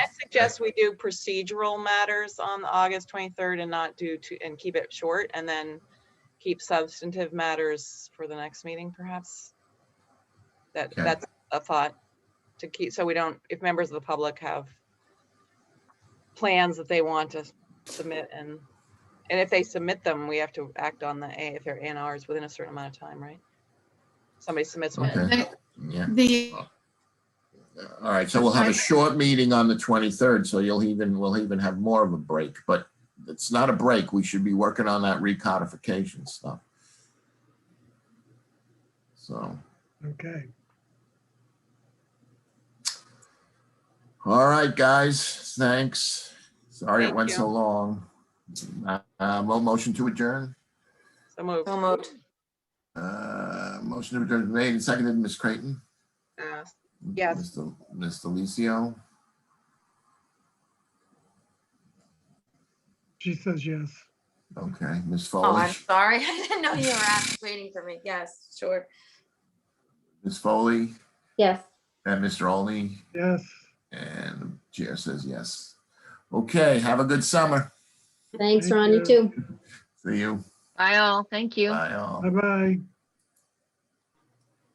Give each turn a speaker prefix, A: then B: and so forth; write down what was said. A: suggest we do procedural matters on August 23rd and not do two, and keep it short and then keep substantive matters for the next meeting perhaps? That,
B: Okay.
A: that's a thought to keep, so we don't, if members of the public have plans that they want to submit and, and if they submit them, we have to act on the, A if they're A and Rs within a certain amount of time, right? Somebody submits one.
B: Okay.
C: The-
B: Yeah,
C: The,
B: Uh, all right, so we'll have a short meeting on the 23rd, so you'll even, we'll even have more of a break, but it's not a break, we should be working on that recodification stuff. So,
D: Okay,
B: all right, guys, thanks. Sorry it
A: Thank
B: went so long. Uh, uh, mo- motion to adjourn?
A: So moved.
E: So moved.
B: Uh, motion to adjourn made and seconded, Ms. Creighton?
A: Uh, Yes.
B: Mr. Mr. Licio?
D: she says yes.
B: Okay, Ms.
E: Oh, I'm
B: Foley?
E: sorry. I didn't know you were out waiting for me. Yes, sure.
B: Ms. Foley
F: Yes.
B: and Mr. Olney?
D: Yes,
B: And the chair says yes. Okay, have a good summer.
F: Thanks,
D: Thank
F: Ron. You
D: you.
F: too.
B: See you.
G: Bye all. Thank you.
B: Bye all.
D: bye-bye.